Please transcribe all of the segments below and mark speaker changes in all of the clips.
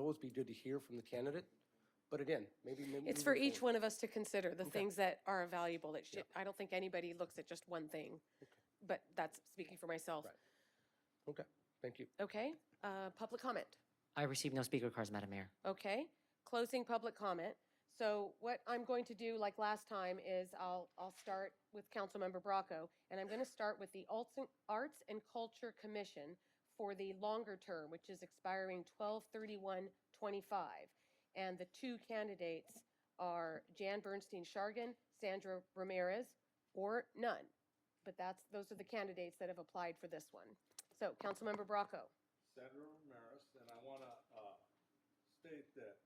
Speaker 1: always be good to hear from the candidate, but again, maybe. maybe
Speaker 2: It's
Speaker 1: moving
Speaker 2: for each
Speaker 1: forward.
Speaker 2: one of us to consider, the things that are valuable, that should, I don't think anybody looks at just one thing. But that's speaking for myself.
Speaker 1: Right. Okay, thank you.
Speaker 2: Okay, uh, public comment.
Speaker 3: I received no speaker cards, Madam Mayor.
Speaker 2: Okay, closing public comment. So what I'm going to do, like last time, is I'll, I'll start with Councilmember Bracco, and I'm going to start with the Alts and- Arts and Culture Commission for the longer term, which is expiring 12/31/25. And the two candidates are Jan Bernstein Shargan, Sandra Ramirez, or none. But that's, those are the candidates that have applied for this one. So, Councilmember Bracco.
Speaker 4: Senator Ramirez, and I want to uh, state that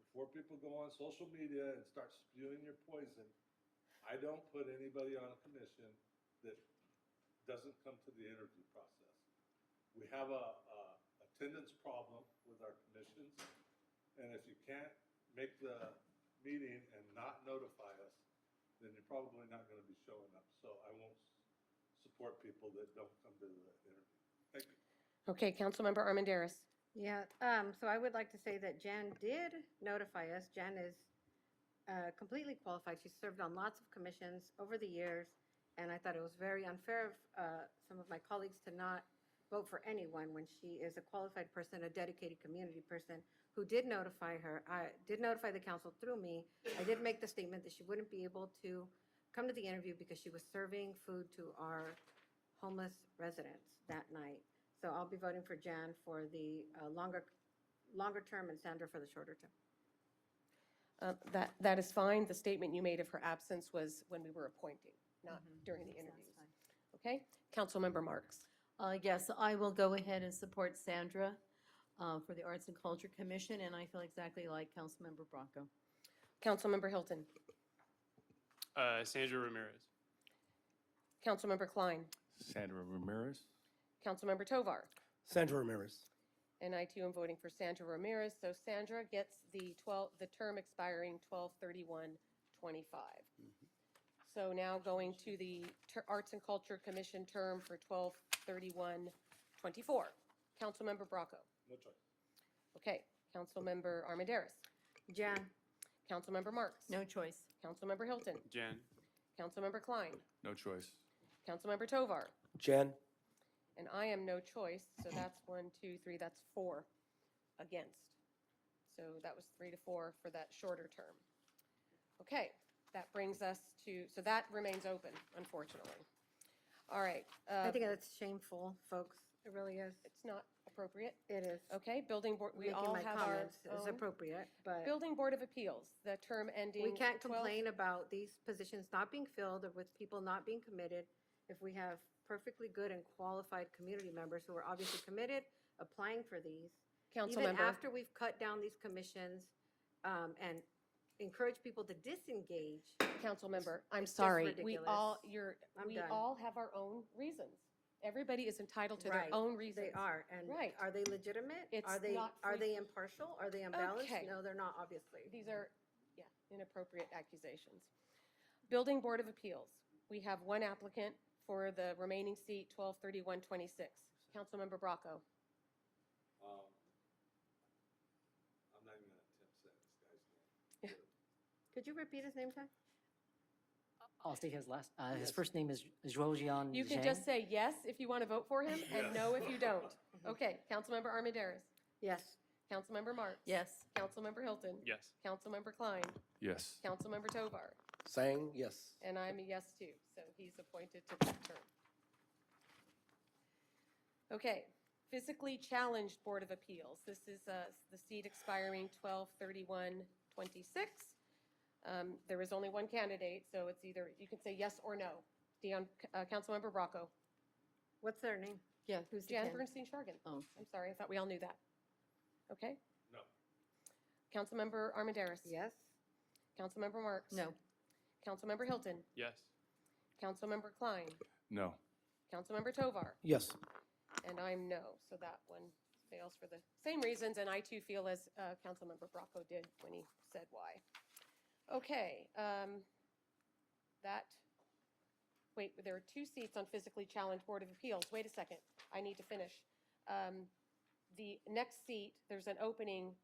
Speaker 4: before people go on social media and start spewing your poison, I don't put anybody on a commission that doesn't come to the interview process. We have a, a attendance problem with our commissions, and if you can't make the meeting and not notify us, then you're probably not going to be showing up. So I won't s- support people that don't come to the interview. Thank you.
Speaker 2: Okay, Councilmember Armandaris.
Speaker 5: Yeah, um, so I would like to say that Jan did notify us. Jan is uh, completely qualified. She's served on lots of commissions over the years, and I thought it was very unfair of uh, some of my colleagues to not vote for anyone when she is a qualified person, a dedicated community person who did notify her, I did notify the council through me. I did make the statement that she wouldn't be able to come to the interview because she was serving food to our homeless residents that night. So I'll be voting for Jan for the uh, longer, longer term and Sandra for the shorter term.
Speaker 2: Uh, That, that is fine. The statement you made of her absence was when we were appointing, not during the interviews. Okay? Councilmember Marks.
Speaker 6: Uh, Yes, I will go ahead and support Sandra uh, for the Arts and Culture Commission, and I feel exactly like Councilmember Bronco.
Speaker 2: Councilmember Hilton.
Speaker 7: Uh, Sandra Ramirez.
Speaker 2: Councilmember Klein.
Speaker 8: Sandra Ramirez.
Speaker 2: Councilmember Tovar.
Speaker 1: Sandra Ramirez.
Speaker 2: And I too am voting for Sandra Ramirez. So Sandra gets the 12, the term expiring 12/31/25.
Speaker 8: Mm-hmm.
Speaker 2: So now going to the Ter- Arts and Culture Commission term for 12/31/24. Councilmember Bracco.
Speaker 4: No choice.
Speaker 2: Okay. Councilmember Armandaris.
Speaker 5: Jan,
Speaker 2: Councilmember Marks.
Speaker 6: No choice.
Speaker 2: Councilmember Hilton.
Speaker 7: Jen.
Speaker 2: Councilmember Klein.
Speaker 8: No choice.
Speaker 2: Councilmember Tovar.
Speaker 1: Jen,
Speaker 2: And I am no choice, so that's one, two, three, that's four against. So that was three to four for that shorter term. Okay, that brings us to, so that remains open, unfortunately. All right.
Speaker 5: I
Speaker 2: uh,
Speaker 5: think that's shameful, folks. It really is.
Speaker 2: It's not appropriate.
Speaker 5: It is.
Speaker 2: Okay, Building Board, we
Speaker 5: Making
Speaker 2: all
Speaker 5: my
Speaker 2: have our
Speaker 5: comments is
Speaker 2: own.
Speaker 5: appropriate, but
Speaker 2: Building Board of Appeals, the term ending.
Speaker 5: we can't
Speaker 2: 12
Speaker 5: complain about these positions not being filled or with people not being committed if we have perfectly good and qualified community members who are obviously committed, applying for these. Even
Speaker 2: Councilmember,
Speaker 5: after we've cut down these commissions um, and encourage people to disengage,
Speaker 2: Councilmember, I'm
Speaker 5: it's just
Speaker 2: sorry. We all,
Speaker 5: ridiculous.
Speaker 2: you're,
Speaker 5: I'm
Speaker 2: we
Speaker 5: done.
Speaker 2: all have our own reasons. Everybody is entitled to their
Speaker 5: Right,
Speaker 2: own reasons.
Speaker 5: they are. And
Speaker 2: Right.
Speaker 5: are they legitimate?
Speaker 2: It's
Speaker 5: Are they,
Speaker 2: not
Speaker 5: are
Speaker 2: free-
Speaker 5: they impartial? Are they
Speaker 2: Okay.
Speaker 5: unbalanced? No, they're not, obviously.
Speaker 2: These are, yeah, inappropriate accusations. Building Board of Appeals, we have one applicant for the remaining seat, 123126. Councilmember Bracco.
Speaker 4: Um, I'm not even gonna attempt to say this guy's name.
Speaker 5: Could you repeat his name, Ty?
Speaker 3: I'll state his last, uh, his first name is Zhuo Jian
Speaker 2: You can
Speaker 3: Zhang.
Speaker 2: just say yes if you want to vote for him, and no if you don't. Okay, Councilmember Armandaris.
Speaker 5: Yes.
Speaker 2: Councilmember Marks.
Speaker 6: Yes.
Speaker 2: Councilmember Hilton.
Speaker 7: Yes.
Speaker 2: Councilmember Klein.
Speaker 8: Yes.
Speaker 2: Councilmember Tovar.
Speaker 1: Sang, yes.
Speaker 2: And I'm a yes too, so he's appointed to that term. Okay, Physically Challenged Board of Appeals. This is uh, the seat expiring 12/31/26. Um, There is only one candidate, so it's either, you can say yes or no. Dion, uh, Councilmember Bracco.
Speaker 5: What's their name?
Speaker 6: Yeah, who's the
Speaker 2: Jan
Speaker 6: candidate?
Speaker 2: Bernstein Shargan.
Speaker 6: Oh,
Speaker 2: I'm sorry, I thought we all knew that. Okay?
Speaker 4: No.
Speaker 2: Councilmember Armandaris.
Speaker 5: Yes.
Speaker 2: Councilmember Marks.
Speaker 6: no.
Speaker 2: Councilmember Hilton.
Speaker 7: Yes.
Speaker 2: Councilmember Klein.
Speaker 8: No.
Speaker 2: Councilmember Tovar.
Speaker 1: Yes.
Speaker 2: And I'm no, so that one fails for the same reasons, and I too feel as uh, Councilmember Bracco did when he said why. Okay, um, that, wait, there are two seats on Physically Challenged Board of Appeals. Wait a second, I need to finish. Um, The next seat, there's an opening